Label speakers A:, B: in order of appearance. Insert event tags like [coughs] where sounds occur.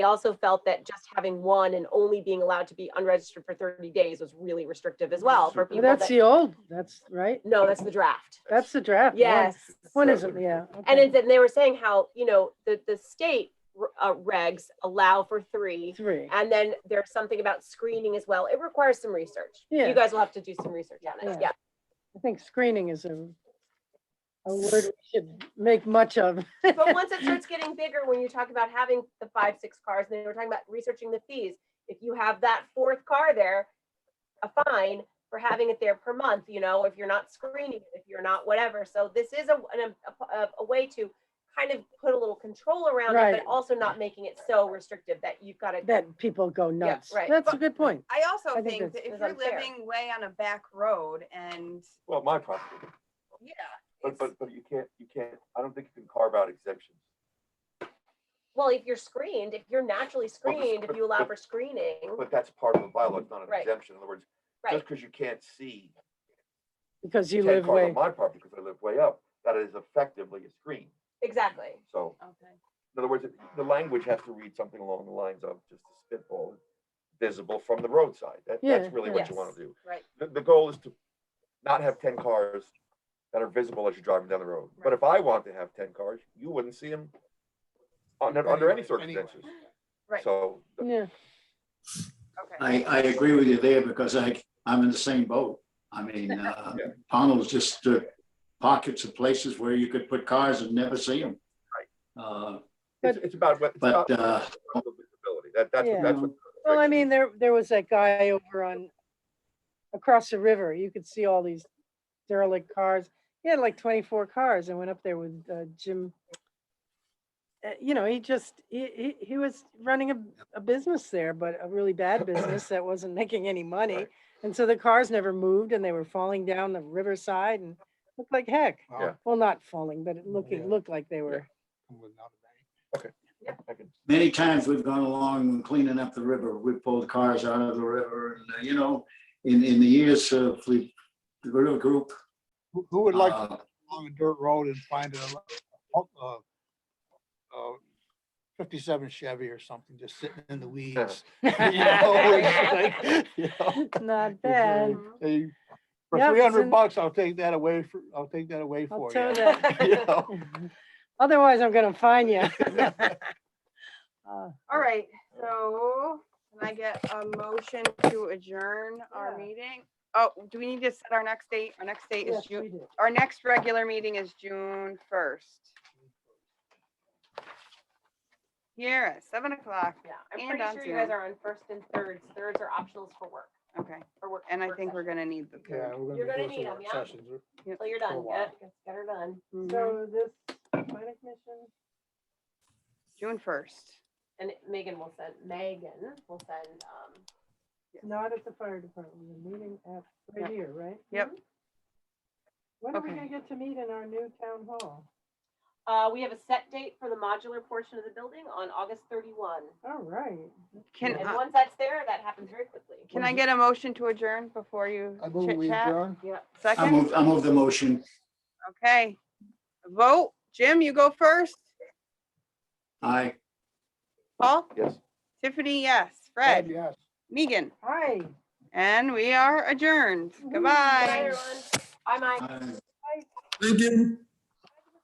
A: also felt that just having one and only being allowed to be unregistered for 30 days was really restrictive as well for
B: Well,
A: people
B: that's
A: that,
B: the old, that's right.
A: no, that's the draft.
B: That's the draft. one.
A: Yes.
B: One isn't, yeah.
A: And
B: okay.
A: it's, and they were saying how, you know, the, the state uh, regs allow for three.
B: Three.
A: And then there's something about screening as well. It requires some research.
B: Yeah.
A: You guys will have to do some research on it.
B: Yeah.
A: Yeah.
B: I think screening is a, a word we should make much of.
A: But once it starts getting bigger, when you talk about having the five, six cars, and then we're talking about researching the fees. If you have that fourth car there, a fine for having it there per month, you know, if you're not screening, it, if you're not whatever. So this is a, an- a, a, a way to kind of put a little control around it,
B: Right.
A: but also not making it so restrictive that you've got to.
B: That people go nuts.
A: right.
B: That's a good point.
C: I also
B: I think
C: think
B: that's-
C: that if
A: that's
C: you're
A: unfair.
C: living way on a back road and,
D: Well, my property,
C: yeah.
D: but,
C: it's-
D: but, but you can't, you can't, I don't think you can carve out exemptions.
A: Well, if you're screened, if you're naturally screened, if you allow for screening,
D: But that's part of the bylaw, it's not an
A: Right.
D: exemption. In other words,
A: right?
D: just because you can't see,
B: Because you
D: can't
B: live
D: carve out
B: way,
D: my property because I live way up, that is effectively a screen.
A: Exactly.
D: So
C: Okay.
D: in other words, the language has to read something along the lines of just a spitball, visible from the roadside. That,
B: Yeah,
D: that's really what you
A: yeah.
D: want to do.
C: Right.
D: The, the goal is to not have ten cars that are visible as you're driving down the road. But if I want to have ten cars, you wouldn't see them under, under any
E: Anyway, anyway.
D: circumstances.
C: Right,
D: So the-
B: yeah.
C: okay.
F: I, I agree with you there because I, I'm in the same boat. I mean, uh,
D: Yeah.
F: Pownell's just uh, pockets of places where you could put cars and never see them. Uh,
D: It's, it's about what. it's
F: But,
D: about- it's
F: uh,
D: about the visibility. That, that's, what-
B: Yeah.
D: that's what.
B: Well, I mean, there, there was that guy over on, across the river, you could see all these derelict cars. He had like twenty-four cars and went up there with uh, Jim. Uh, You know, he just, he, he, he was running a, a business there, but a really
E: [coughs]
B: bad business that wasn't making any money.
D: Right.
B: And so the cars never moved and they were falling down the riverside and looked like heck.
E: Well,
D: Yeah.
B: Well, not falling, but it looking,
E: Yeah.
B: looked like they were.
E: I'm without a bank.
D: I can-
F: Many times we've gone along and cleaning up the river, we pulled cars out of the river and, uh, you know, in, in the years of the the river group.
E: Who, who would like to
F: uh,
E: go along a dirt road and find a, lo- uh, uh, fifty-seven Chevy or something, just sitting in the weeds? [laughs] You know, it's like, [laughs] you know,
B: [laughs] Not
E: really-
B: bad.
A: Mhm.
E: hey, For
B: Yeah, it's
E: three
B: in-
E: hundred bucks, I'll take that away for, I'll take that away
B: I'll
E: for
B: tell
A: [laughs]
E: you.
B: that.
E: [laughs] You
B: [laughs]
E: know?
B: Otherwise, I'm gonna fine [laughs] you. Uh,
C: All right, so can I get a motion to adjourn our
B: Yeah.
C: meeting? Oh, do we need to set our next date? Our next date is
B: yes,
C: June,
B: we do.
C: our next regular meeting is June first. Here at seven o'clock,
A: Yeah, I'm
C: And
A: pretty
C: on
A: sure you guys
C: Zoom.
A: are on first and thirds. Thirds are optionals for work,
C: okay,
A: for work.
C: and I
A: work
C: think
A: session.
C: we're gonna need the
E: Yeah,
C: third.
E: we're
A: You're gonna
E: gonna be doing
A: need
E: some
A: 'em,
E: work
A: yeah.
E: sessions.
A: Till you're
E: for a
A: done,
E: while.
A: yeah, get her done.
C: Mhm.
B: So this planning commission,
C: June first.
A: And Megan will send, Megan will send, um,
B: not at the fire department, the meeting at,
C: Yep.
B: right here, right? Hmm?
C: Yep.
B: When are we
C: Okay.
B: gonna get to meet in our new town hall?
A: uh, we have a set date for the modular portion of the building on August thirty-one.
B: All right.
C: Can,
A: And
C: I-
A: once that's there, that happens very quickly.
C: can I get a motion to adjourn before you
E: I move
C: chit
E: we
C: chat?
E: adjourn.
A: Yep.
F: I
C: Second,
F: move, I move the motion.
C: okay. Vote, Jim, you go first.
F: Aye.
C: Paul,
D: Yes.
C: Tiffany, yes. Fred,
E: Yes.
C: Megan,
B: Hi.
C: and we are adjourned.
A: Bye,
B: Woo.
C: Goodbye.
A: everyone. Bye, Mike.
F: Aye.
G: Thank you.